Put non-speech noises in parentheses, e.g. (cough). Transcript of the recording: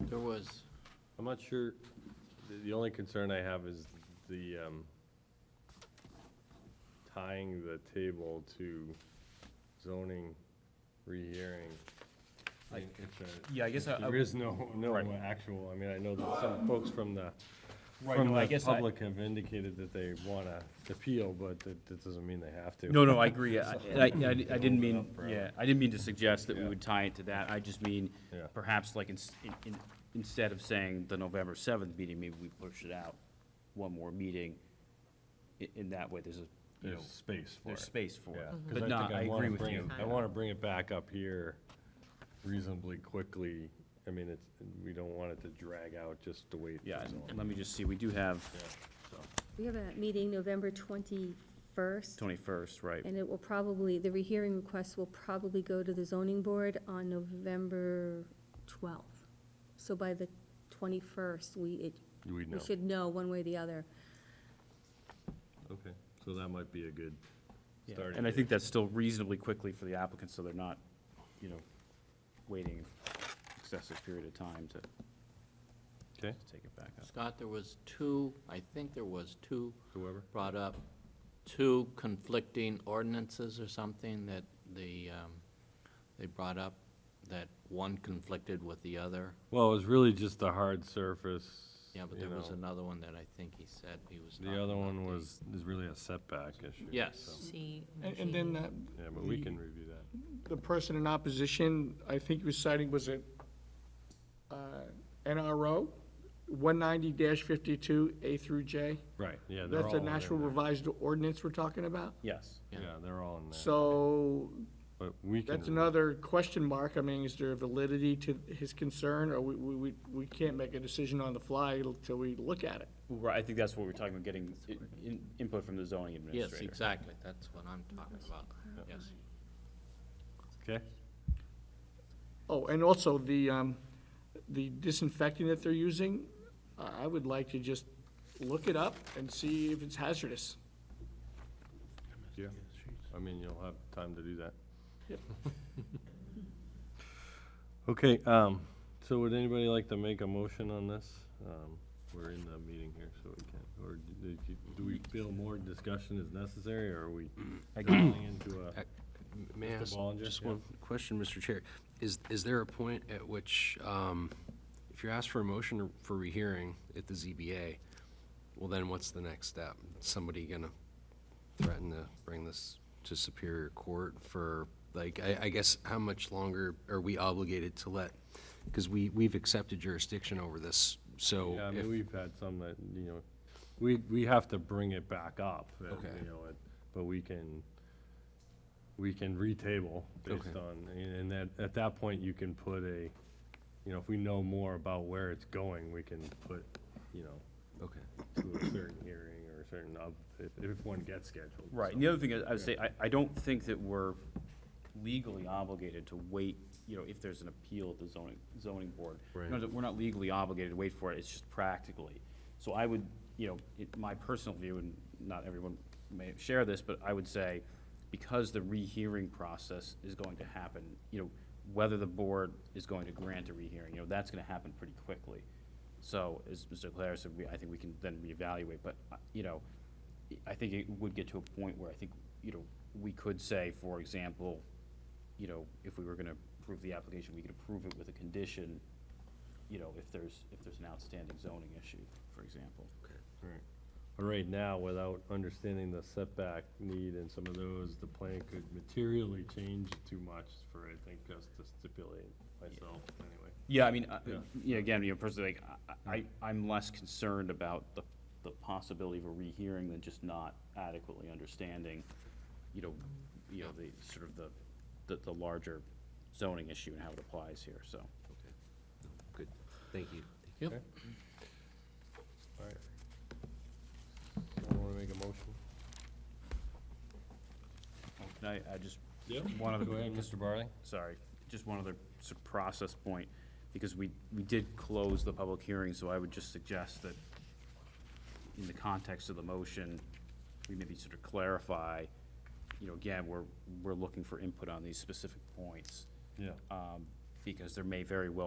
There was. I'm not sure, the, the only concern I have is the, um, tying the table to zoning rehearing. I mean, it's a- Yeah, I guess I- I There would- is no, no Right. actual, I mean, I know that some folks from the, Right, from no, I the guess I- public have indicated that they wanna appeal, but that, that doesn't mean they have to. No, no, I agree. I, I, I (laughs) didn't mean, up for- yeah, I didn't mean to suggest that we Yeah. would tie it to that. I just mean, Yeah. perhaps like, ins- in- in- instead of saying the November seventh meeting, maybe we push it out one more meeting. In, in that way, there's a, you know, There's space for it. there's space for it. Yeah, 'cause But I no, think I wanna agree with bring you. it- I want to bring it back up here reasonably quickly. I mean, it's, we don't want it to drag out just the way. it Yeah, is and- on. and let me just see, we do have Yeah, so. We have a meeting November 21st, twenty-first, right? and it will probably, the rehearing request will probably go to the zoning board on November 12th. So by the 21st, we, it, We we know. should know one way or the other. Okay, so that might be a good Yeah, starting. And I date. think that's still reasonably quickly for the applicant, so they're not, you know, waiting excessive period of time to Okay, to take it back up. Scott, there was two, I think there was two whoever. brought up, two conflicting ordinances or something that the, um, they brought up, that one conflicted with the other. Well, it was really just the hard surface. Yeah, but you there was know. another one that I think he said he was talking The other about one the- was, is really a setback issue. so- Yes, See. And, and then that, Yeah, but we The- can review that. the person in opposition, I think he was citing, was it, uh, NRO, one ninety fifty-two, A through J? Right, yeah, they're all. That's the in national there. revised ordinance we're talking about? Yes. Yeah. Yeah, they're all in there, So, but we can. that's another question mark, I mean, is there validity to his concern, or we, we, we- we can't make a decision on the fly till we look at it? Right, I think that's what we're talking about, getting i- in- input from the zoning yes, administrator. exactly, that's what I'm talking about, yes. Okay, Oh, and also the, um, the disinfectant that they're using, I, I would like to just look it up and see if it's hazardous. yeah, I mean, you'll have time to do that. Yep. (laughs) Okay, um, so would anybody like to make a motion on this? Um, we're in the meeting here, so we can, or d- did you- do we feel more discussion is necessary, or are we going into a? May I Mr. ask Bollinger, just yeah. one question, Mr. Chair? Is, is there a point at which, um, if you're asked for a motion for rehearing at the ZBA, well, then what's the next step? Somebody gonna threaten to bring this to Superior Court for, like, I, I guess, how much longer are we obligated to let? Because we, we've accepted jurisdiction over this, so Yeah, I if- mean, we've had some that, you know, we, we have to bring it back up, uh, Okay. you know, it- but we can, we can retable based Okay. on, and and that, at that point, you can put a, you know, if we know more about where it's going, we can put, you know, Okay. to a certain hearing or a certain, of- if, if one gets scheduled. Right, and the other thing is, I would say, I, I don't think that we're legally obligated to wait, you know, if there's an appeal at the zoning, zoning board. You know, Right. We're not legally obligated to wait for it, it's just practically. So I would, you know, it, my personal view, and not everyone may share this, but I would say, because the rehearing process is going to happen, you know, whether the board is going to grant a rehearing, you know, that's gonna happen pretty quickly. So, as Mr. Claire said, we, I think we can then reevaluate, but, uh, you know, I think it would get to a point where I think, you know, we could say, for example, you know, if we were gonna approve the application, we could approve it with a condition, you know, if there's, if there's an outstanding zoning issue, for example. Right. But right now, without understanding the setback need and some of those, the plan could materially change too much for, I think, us to stipulate myself, anyway. Yeah, I mean, I- Yeah. yeah, again, you know, personally, like, I- I, I'm less concerned about the, the possibility of a rehearing than just not adequately understanding, you know, you know, the, sort of the, the, the larger zoning issue and how it applies here, so. Good, thank you. Yep, All right. Someone wanna make a motion? Can I, I just, Yeah. one other, Go ahead, Mr. Barley. sorry, just one other sort of process point, because we, we did close the public hearing, so I would just suggest that in the context of the motion, we maybe sort of clarify, you know, again, we're, we're looking for input on these specific points, Yeah. um, because there may very well